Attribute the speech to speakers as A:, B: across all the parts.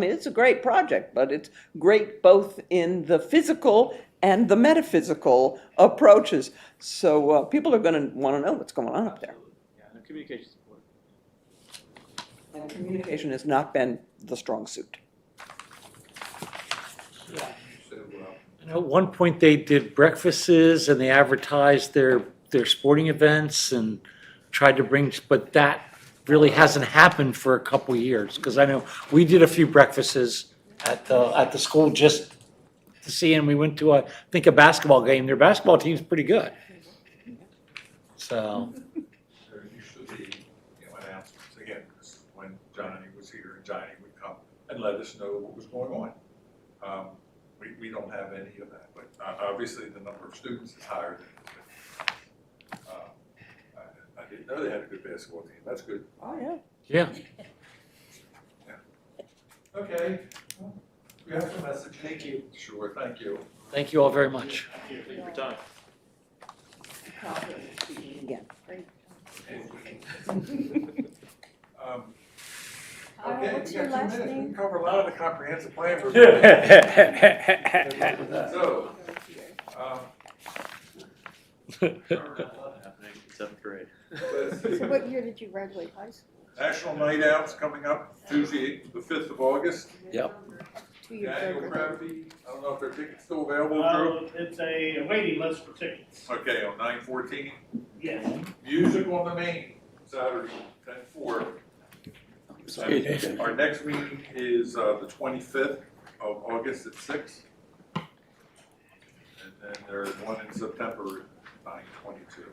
A: I mean, it's a great project, but it's great both in the physical and the metaphysical approaches. So uh, people are going to want to know what's going on up there.
B: Yeah, and communication's important.
A: And communication has not been the strong suit.
C: I know At one point, they did breakfasts and they advertised their, their sporting events and tried to bring, but that really hasn't happened for a couple of years. Because I know, we did a few breakfasts at the, at the school just to see, and we went to, a- I think, a basketball game. Their basketball team's pretty good. So,
D: There used to be, you know, announcements, again, this is when Johnny was here, and Johnny would come and let us know what was going on. Um, We, we don't have any of that, but uh, obviously the number of students is higher than it's been. Uh, I I didn't know they had a good basketball team, that's good.
A: Oh, yeah.
C: yeah,
D: Okay. We have some message. Thank you. Sure, thank you.
C: thank you all very much.
B: Thank you for your time.
A: Again.
D: Um,
E: Uh,
D: Okay,
E: what's
D: we
E: your
D: got two
E: last
D: minutes. We
E: name?
D: can cover a lot of the comprehensive plan. for- So, um,
B: Happening in seventh grade.
D: let's see.
E: So what year did you graduate high school?
D: National Night Out's coming up Tuesday, the fifth of August.
C: Yep.
E: Two years
D: Daniel
E: over.
D: Crabtree, I don't know if their tickets still available, Drew.
F: Well, it's a waiting list for tickets.
D: Okay, on nine fourteen,
F: Yes.
D: music on the main, Saturday, ten four. Our next meeting is, uh, the twenty-fifth of August at six. And then there's one in September, nine twenty-two.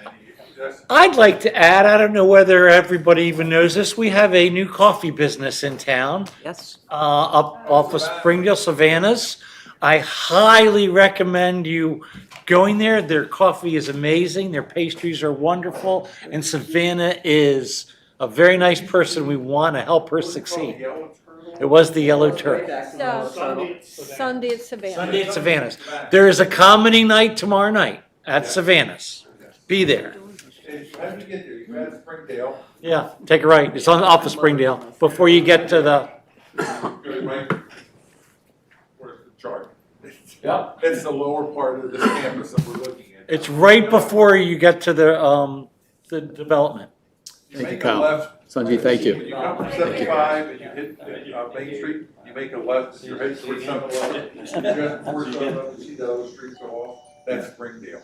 D: Any, yes,
C: I'd like to add, I don't know whether everybody even knows this, we have a new coffee business in town.
A: Yes.
C: uh, up off of Springdale Savannas. I highly recommend you going there. Their coffee is amazing, their pastries are wonderful, and Savannah is a very nice person. We want to help her succeed.
D: Yellow Turtle?
C: It was the Yellow Turtle.
A: Oh.
E: So, Sunday at Savannah.
C: Sunday at Savannah's. There is a comedy night tomorrow night at
D: Yeah.
C: Savannah's. Be there.
D: Hey, How do you get there? You grab Springdale,
C: Yeah, take a right. It's on off of Springdale before you get to the.
D: go right, where's the chart?
C: Yeah.
D: It's the lower part of the campus that we're looking at.
C: It's right before you get to the um the development.
D: You
G: Thank you,
D: make a
G: Kyle.
D: left.
G: Sanjay, thank you.
D: When you come from seventy-five and you hit, uh, Main Street, you make a left, you're heading towards seven eleven. You just before seven eleven, you see the other streets go off, that's Springdale.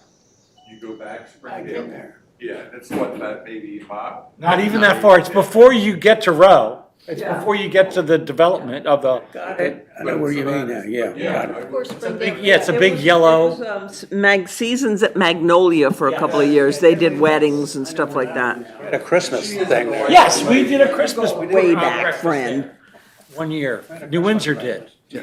D: You go back Springdale.
E: there.
D: Yeah, it's what, about maybe a mile?
C: Not even that far. It's before you get to Row. It's before you get to the development of the,
A: Got
G: I know where you mean now, yeah.
D: Yeah.
E: Of course, Springdale.
C: big- yeah, it's a big yellow.
A: um, Mag, seasons at Magnolia for a couple of years. They did weddings and stuff like that.
G: Had a Christmas thing there.
C: Yes, we did a Christmas.
A: Way
C: uh,
A: back,
C: breakfast
A: friend.
C: there One year. New Windsor did.
D: Yeah,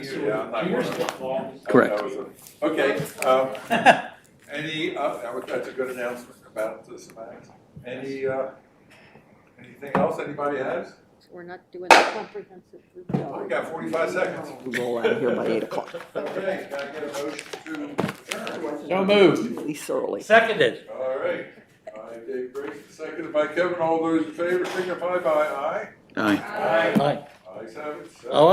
D: I'm not one of them.
G: Correct.
D: That was a- Okay, um, any, uh, that was- that's a good announcement about the semantics. Any, uh, anything else anybody has?
E: We're not doing the comprehensive.
D: Oh, We got forty-five seconds.
A: We roll out of here by eight o'clock,
D: Okay, can I get a motion to adjourn?
G: No move.
A: at least early.
C: Seconded.
D: All right, by Dave Briggs, seconded by Kevin, all those in favor signify by aye.
G: Aye.
D: Aye.
C: Aye.
D: Ayes have it.
C: Oh,